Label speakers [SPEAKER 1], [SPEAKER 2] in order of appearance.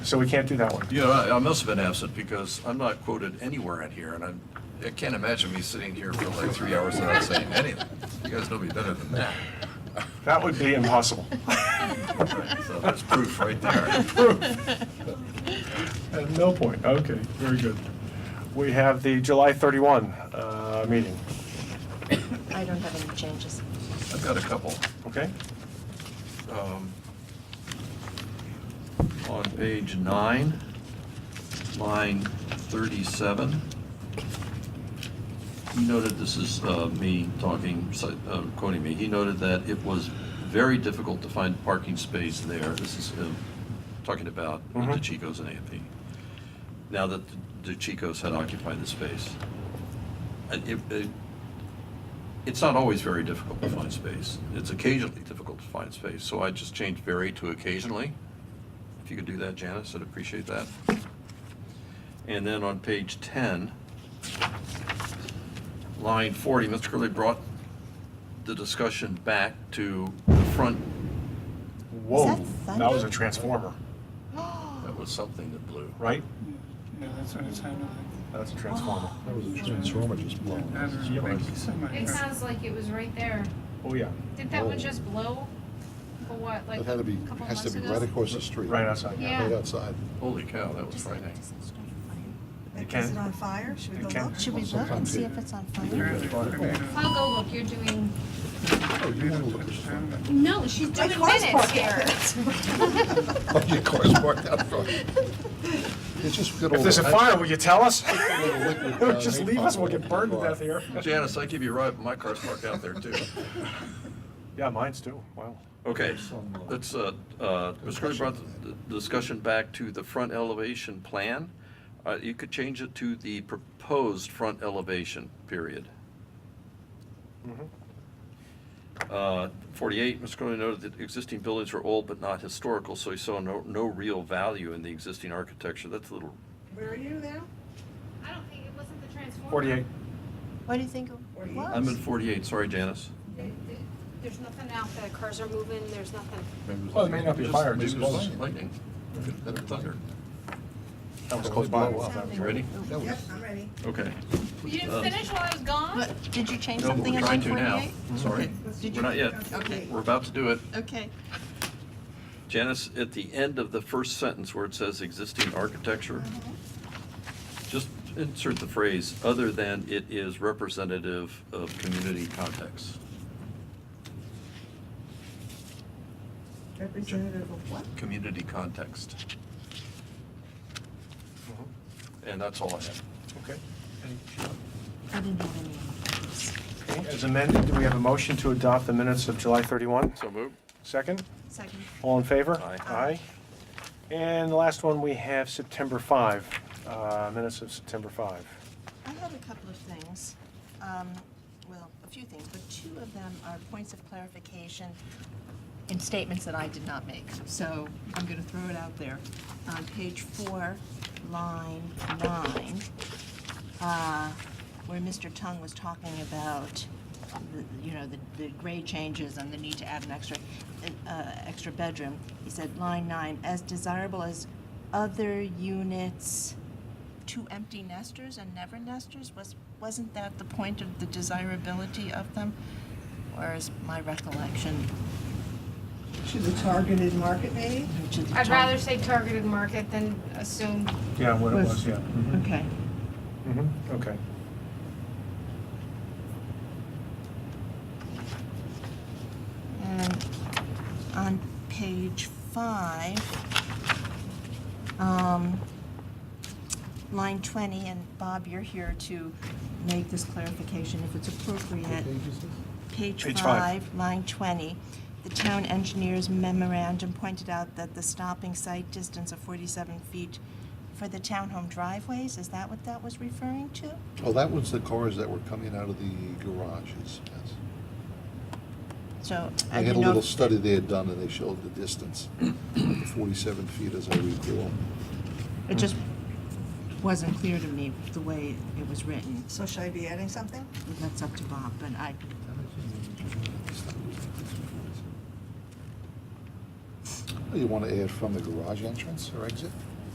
[SPEAKER 1] So we can't do that one.
[SPEAKER 2] You know, I I must have been absent because I'm not quoted anywhere in here, and I'm, I can't imagine me sitting here for like three hours without saying anything. You guys know me better than that.
[SPEAKER 1] That would be impossible.
[SPEAKER 2] So that's proof right there.
[SPEAKER 1] At no point, okay, very good. We have the July 31 uh, meeting,
[SPEAKER 3] I don't have any changes.
[SPEAKER 2] I've got a couple.
[SPEAKER 1] okay?
[SPEAKER 2] Um, On page nine, line 37, he noted, this is uh, me talking, so, uh, quoting me, he noted that it was very difficult to find parking space there. This is him talking about the
[SPEAKER 1] Mhm.
[SPEAKER 2] DeChicos and AMP. Now that the DeChicos had occupied the space. And it- it- it's not always very difficult to find space. It's occasionally difficult to find space, so I just changed very to occasionally. If you could do that, Janice, I'd appreciate that. And then on page 10, line 40, Mr. Curley brought the discussion back to the front.
[SPEAKER 1] Whoa,
[SPEAKER 3] that
[SPEAKER 1] that was
[SPEAKER 3] Sunday?
[SPEAKER 1] a transformer,
[SPEAKER 2] That was something that blew.
[SPEAKER 1] right?
[SPEAKER 4] Yeah, that's what it sounded like.
[SPEAKER 1] That's a transformer.
[SPEAKER 5] That was a transformer just blown.
[SPEAKER 4] I don't know, thank you so much.
[SPEAKER 6] It sounds like it was right there.
[SPEAKER 1] Oh, yeah,
[SPEAKER 6] Did that one
[SPEAKER 5] Oh.
[SPEAKER 6] just blow? For what, like?
[SPEAKER 5] It had to be,
[SPEAKER 6] a couple
[SPEAKER 5] has to
[SPEAKER 6] months
[SPEAKER 5] be
[SPEAKER 6] ago?
[SPEAKER 5] right across the street.
[SPEAKER 1] right outside.
[SPEAKER 6] Yeah.
[SPEAKER 5] Right outside.
[SPEAKER 2] Holy cow, that was frightening.
[SPEAKER 1] It
[SPEAKER 7] Is
[SPEAKER 1] can.
[SPEAKER 7] it on fire? Should we
[SPEAKER 1] It
[SPEAKER 7] go
[SPEAKER 1] can.
[SPEAKER 7] look?
[SPEAKER 3] Should we look and see if it's on fire?
[SPEAKER 4] Apparently, I mean, uh,
[SPEAKER 6] I'll go look, you're doing,
[SPEAKER 5] Oh, you want to look at this one?
[SPEAKER 4] sounded-
[SPEAKER 6] no, she's
[SPEAKER 7] My
[SPEAKER 6] doing
[SPEAKER 7] car's
[SPEAKER 6] minutes
[SPEAKER 7] parked
[SPEAKER 6] here.
[SPEAKER 5] Oh, your car's parked out front. It's just good old.
[SPEAKER 1] If there's a fire, will you tell us?
[SPEAKER 5] liquid, uh,
[SPEAKER 1] Just leave us, we'll get burned to
[SPEAKER 5] bar.
[SPEAKER 1] death here.
[SPEAKER 2] Janice, I give you a ride, but my car's parked out there too.
[SPEAKER 1] Yeah, mine's too, wow.
[SPEAKER 2] Okay, let's, uh, uh, Mr. Curley brought the the discussion back to the front elevation plan. Uh, You could change it to the proposed front elevation, period.
[SPEAKER 1] Mhm.
[SPEAKER 2] Uh, 48, Mr. Curley noted that existing buildings were old but not historical, so he saw no, no real value in the existing architecture. That's a little,
[SPEAKER 7] Where are you now?
[SPEAKER 6] I don't think, it wasn't the transformer.
[SPEAKER 1] 48,
[SPEAKER 3] What do you think it was?
[SPEAKER 2] I'm in 48, sorry, Janice.
[SPEAKER 8] There's nothing out there, cars are moving, there's nothing.
[SPEAKER 1] Well, it may not be
[SPEAKER 2] Just-
[SPEAKER 1] fire,
[SPEAKER 2] maybe
[SPEAKER 1] just
[SPEAKER 2] it was
[SPEAKER 1] lightning.
[SPEAKER 2] Lightning, Could have thunder.
[SPEAKER 1] that was close by.
[SPEAKER 5] Blow up.
[SPEAKER 2] You ready?
[SPEAKER 5] That was-
[SPEAKER 7] Yep, I'm ready.
[SPEAKER 2] Okay.
[SPEAKER 6] You didn't finish while I was gone?
[SPEAKER 3] What- Did you change
[SPEAKER 2] No, but
[SPEAKER 3] something
[SPEAKER 2] we're
[SPEAKER 3] in
[SPEAKER 2] trying
[SPEAKER 3] line
[SPEAKER 2] to now.
[SPEAKER 3] 48?
[SPEAKER 2] Sorry,
[SPEAKER 7] Did
[SPEAKER 2] we're
[SPEAKER 7] you-
[SPEAKER 2] not yet.
[SPEAKER 7] Okay.
[SPEAKER 2] We're about to do it.
[SPEAKER 3] Okay.
[SPEAKER 2] Janice, at the end of the first sentence where it says existing architecture, just insert the phrase, other than it is representative of community context.
[SPEAKER 7] Representative of what?
[SPEAKER 2] Community context. And that's all I have.
[SPEAKER 1] Okay.
[SPEAKER 3] I didn't have any.
[SPEAKER 1] Okay, As amended, do we have a motion to adopt the minutes of July 31?
[SPEAKER 2] So move.
[SPEAKER 1] Second?
[SPEAKER 3] Second.
[SPEAKER 1] All in favor?
[SPEAKER 2] Aye.
[SPEAKER 1] Aye. And the last one, we have September 5, uh, minutes of September 5.
[SPEAKER 3] I had a couple of things, um, well, a few things, but two of them are points of clarification in statements that I did not make, so I'm gonna throw it out there. On page four, line nine, uh, where Mr. Tung was talking about, the- you know, the, the grade changes and the need to add an extra, uh, extra bedroom, he said, line nine, as desirable as other units, two empty nesters and never nesters? Was, wasn't that the point of the desirability of them? Or is my recollection
[SPEAKER 7] To the targeted market, maybe?
[SPEAKER 3] to the
[SPEAKER 6] I'd
[SPEAKER 3] top?
[SPEAKER 6] rather say targeted market than assume.
[SPEAKER 1] Yeah, what
[SPEAKER 3] it was,
[SPEAKER 1] yeah. Mm-hmm.
[SPEAKER 3] Okay.
[SPEAKER 1] Okay.
[SPEAKER 3] And on page five, um, line twenty, and Bob, you're here to make this clarification if it's appropriate. Page
[SPEAKER 1] Page five.
[SPEAKER 3] five, line 20, the town engineer's memorandum pointed out that the stopping site distance of 47 feet for the townhome driveways, is that what that was referring to?
[SPEAKER 5] Oh, that was the cars that were coming out of the garages, yes.
[SPEAKER 3] So I
[SPEAKER 5] They had a
[SPEAKER 3] didn't know,
[SPEAKER 5] little
[SPEAKER 3] if-
[SPEAKER 5] study they had done and they showed the distance, forty-seven feet as I recall.
[SPEAKER 3] it just wasn't clear to me the way it was written.
[SPEAKER 7] So should I be adding something?
[SPEAKER 3] That's up to Bob, but I,
[SPEAKER 5] You want to add from the garage entrance or exit?